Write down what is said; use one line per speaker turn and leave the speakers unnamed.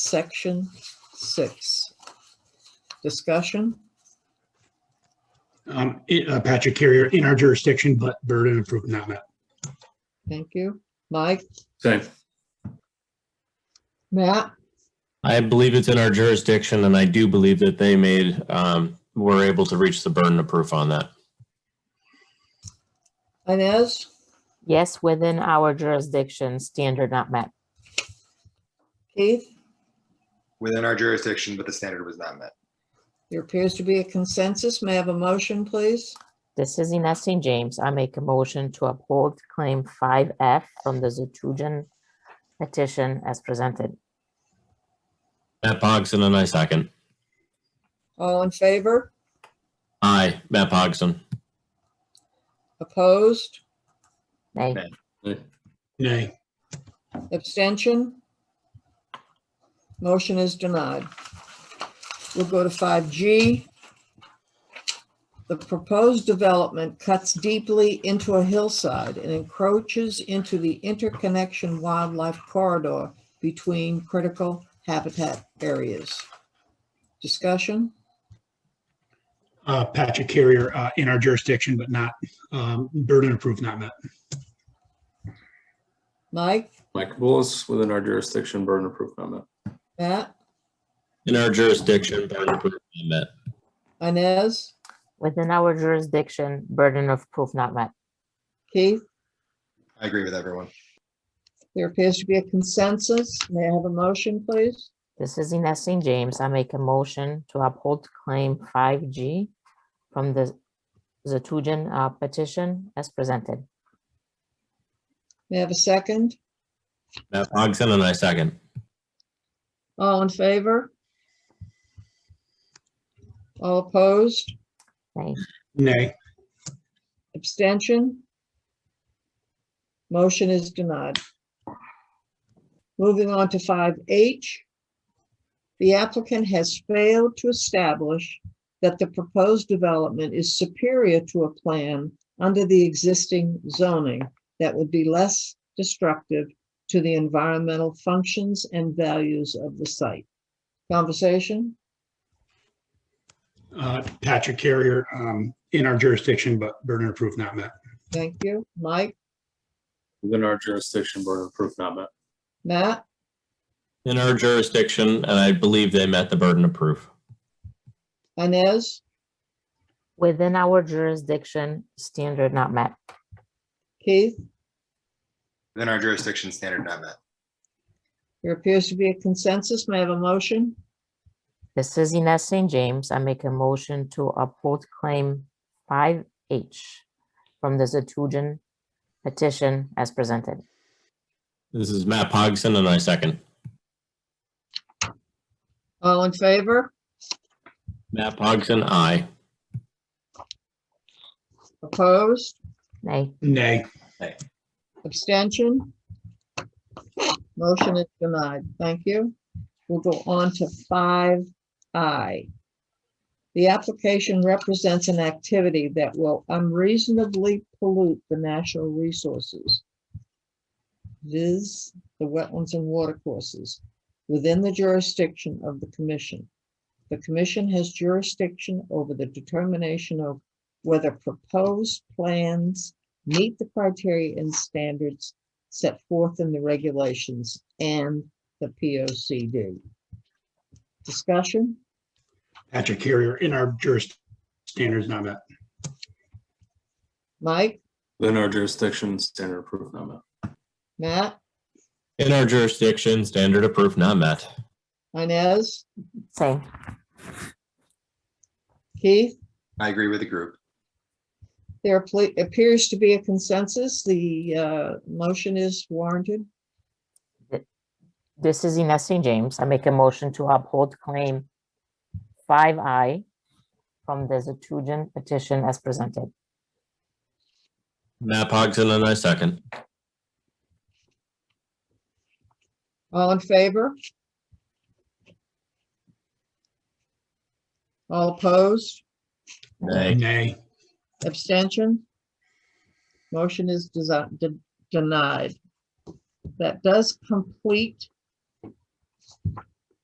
section six. Discussion?
Um, i- uh, Patrick Carrier in our jurisdiction, but burden of proof not met.
Thank you. Mike,
Same.
Matt,
I believe it's in our jurisdiction and I do believe that they made, um, were able to reach the burden of proof on that.
Inez,
Yes, within our jurisdiction, standard not met.
Keith?
within our jurisdiction, but the standard was not met.
There appears to be a consensus. May I have a motion, please?
This is Ines St. James. I make a motion to uphold claim five F from the Zetujan petition as presented.
Matt Pogson and I second.
All in favor?
Aye, Matt Pogson.
Opposed?
Nay,
Nay.
Nay,
Abstention? Motion is denied. We'll go to 5G. The proposed development cuts deeply into a hillside and encroaches into the interconnection wildlife corridor between critical habitat areas. Discussion?
uh, Patrick Carrier, uh, in our jurisdiction, but not, um, burden of proof not met.
Mike,
Mike Kabulis, within our jurisdiction, burden of proof not met.
Matt,
In our jurisdiction, burden of proof not met.
Inez,
within our jurisdiction, burden of proof not met.
Keith?
I agree with everyone.
There appears to be a consensus. May I have a motion, please?
This is Ines St. James. I make a motion to uphold claim five G from the Zetujan uh, petition as presented.
May I have a second?
Matt Pogson and I second.
All in favor? All opposed?
Nay,
Nay,
Abstention? Motion is denied. Moving on to 5H. The applicant has failed to establish that the proposed development is superior to a plan under the existing zoning that would be less destructive to the environmental functions and values of the site. Conversation?
uh, Patrick Carrier, um, in our jurisdiction, but burden of proof not met.
Thank you. Mike,
Within our jurisdiction, burden of proof not met.
Matt,
In our jurisdiction, and I believe they met the burden of proof.
Inez,
within our jurisdiction, standard not met.
Keith,
Within our jurisdiction, standard not met.
there appears to be a consensus. May I have a motion?
This is Ines St. James. I make a motion to uphold claim five H from the Zetujan petition as presented.
This is Matt Pogson and I second.
All in favor?
Matt Pogson, aye.
Opposed?
Nay,
Nay,
Abstention? Motion is denied. Thank you. We'll go on to five I. The application represents an activity that will unreasonably pollute the national resources. viz. the wetlands and watercourses within the jurisdiction of the commission. The commission has jurisdiction over the determination of whether proposed plans meet the criteria and standards set forth in the regulations and the P O C D. Discussion?
Patrick Carrier, in our jurisdiction, standards not met.
Mike,
Within our jurisdiction, standard of proof not met.
Matt,
In our jurisdiction, standard of proof not met.
Inez,
same.
Keith?
I agree with the group.
There ple- appears to be a consensus. The uh, motion is warranted.
This is Ines St. James. I make a motion to uphold claim five I from the Zetujan petition as presented.
Matt Pogson and I second.
All in favor? All opposed?
Nay.
Nay,
Abstention? Motion is desi- de- denied. That does complete